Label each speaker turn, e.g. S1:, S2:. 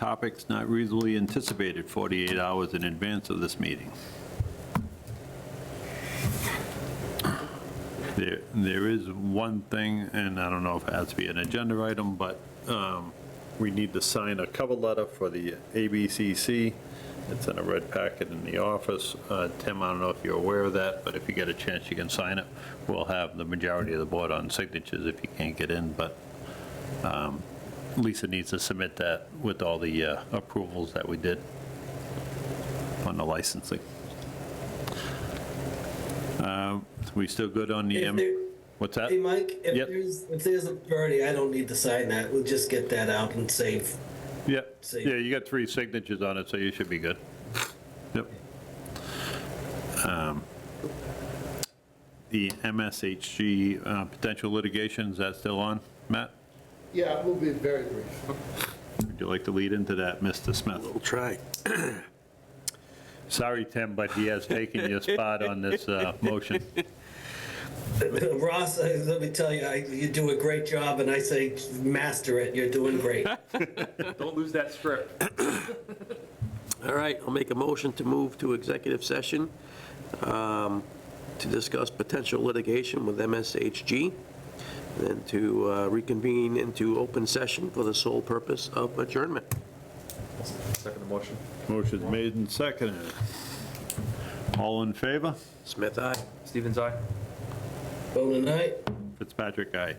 S1: topics not reasonably anticipated 48 hours in advance of this meeting. There, There is one thing, and I don't know if it has to be an agenda item, but um, we need to sign a cover letter for the ABCC. It's in a red packet in the office. Uh, Tim, I don't know if you're aware of that, but if you get a chance, you can sign it. We'll have the majority of the board on signatures if you can't get in, but um, Lisa needs to submit that with all the uh, approvals that we did on the licensing. Um, We still good on the,
S2: If
S1: M-
S2: there-
S1: what's that?
S2: Hey, Mike,
S1: Uh, Yep.
S2: if there's, if there's a party, I don't need to sign that. We'll just get that out and save.
S1: Yeah,
S2: See.
S1: yeah, you got three signatures on it, so you should be good. Yep. Um, The MSHG uh, potential litigation, is that still on, Matt?
S3: Yeah, we'll be very brief.
S1: Would you like to lead into that, Mr. Smith?
S4: We'll try.
S1: Sorry, Tim, but he has taken your spot on this uh, motion.
S2: Ross, I- let me tell you, I- you do a great job, and I say, master it. You're doing great.
S5: Don't lose that script.
S4: All right, I'll make a motion to move to executive session um, to discuss potential litigation with MSHG, and to uh, reconvene into open session for the sole purpose of adjournment.
S5: Second motion.
S1: Motion's made and seconded. All in favor?
S4: Smith, aye.
S5: Stevens, aye.
S2: Bone and I.
S1: Fitzpatrick, aye.